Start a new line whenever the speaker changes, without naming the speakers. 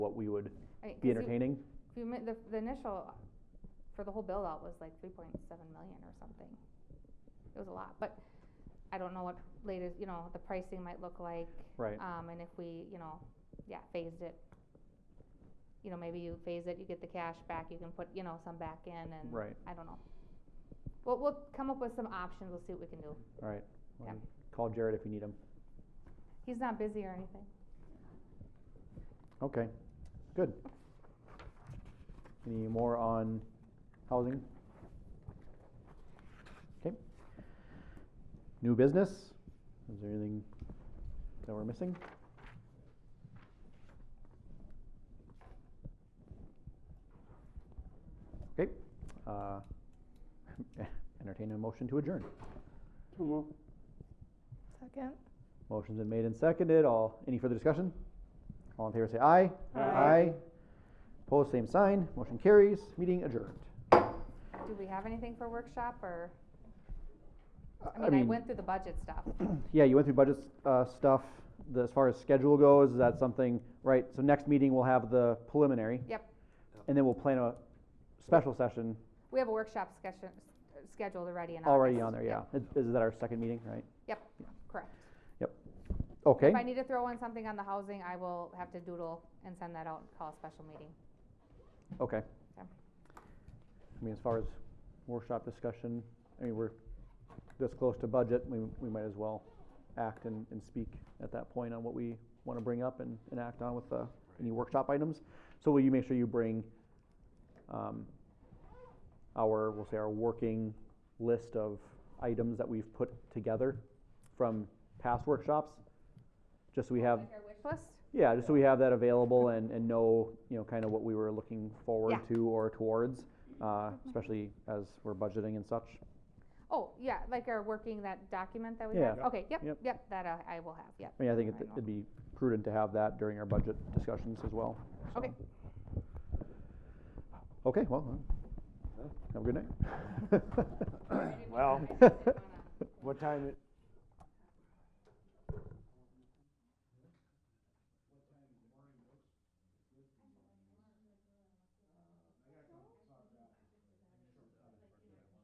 what we would
I mean,
be
'cause you-
entertaining.
you mi- the, the initial, for the whole build out was like three point seven million or something. It was a lot, but I don't know what latest, you know, the pricing might look like.
Right.
Um, and if we, you know, yeah, phased it. You know, maybe you phase it, you get the cash back, you can put, you know, some back in and,
Right,
I don't know. We'll, we'll come up with some options, we'll see what we can do.
all right. Well,
Yeah.
Call Jared if you need him.
He's not busy or anything.
Okay, good. Any more on housing? Okay. New business? Is there anything that we're missing? Okay, uh, entertain a motion to adjourn.
Second.
Motion's been made and seconded. All, any further discussion? All in favor say aye.
Aye.
Opposed, same sign. Motion carries. Meeting adjourned.
Do we have anything for workshop or,
I-
I mean, I went through the budget stuff.
Yeah, you went through budget, uh, stuff. The, as far as schedule goes, is that something, right? So next meeting, we'll have the preliminary.
Yep.
And then we'll plan a special session
We have a workshop session scheduled already in August.
already on there, yeah.
Yep,
Is, is that our second meeting, right?
Correct.
Okay,
If I need to throw in something on the housing, I will have to doodle and send that out, and call a special meeting.
okay.
Yeah.
I mean, as far as workshop discussion, I mean, we're this close to budget, we, we might as well act and, and speak at that point on what we want to bring up and, and act on with, uh, any workshop items. So will you make sure you bring, um, our, we'll say our working list of items that we've put together from past workshops? Just so we have,
Like our wish list?
yeah, just so we have that available and, and know, you know, kind of what we were looking forward
Mm-hmm. Yeah. Mm-hmm.
to or towards, uh, especially as we're budgeting and such.
Oh, yeah, like our working that document that we
Yeah.
have? Okay, yep,
Yep.
yep, that uh, I will have, yep.
I mean, I think it-
I know.
it'd be prudent to have that during our budget discussions as well. so.
Okay.
Okay, well, uh, have a good night.
Well, what time, it-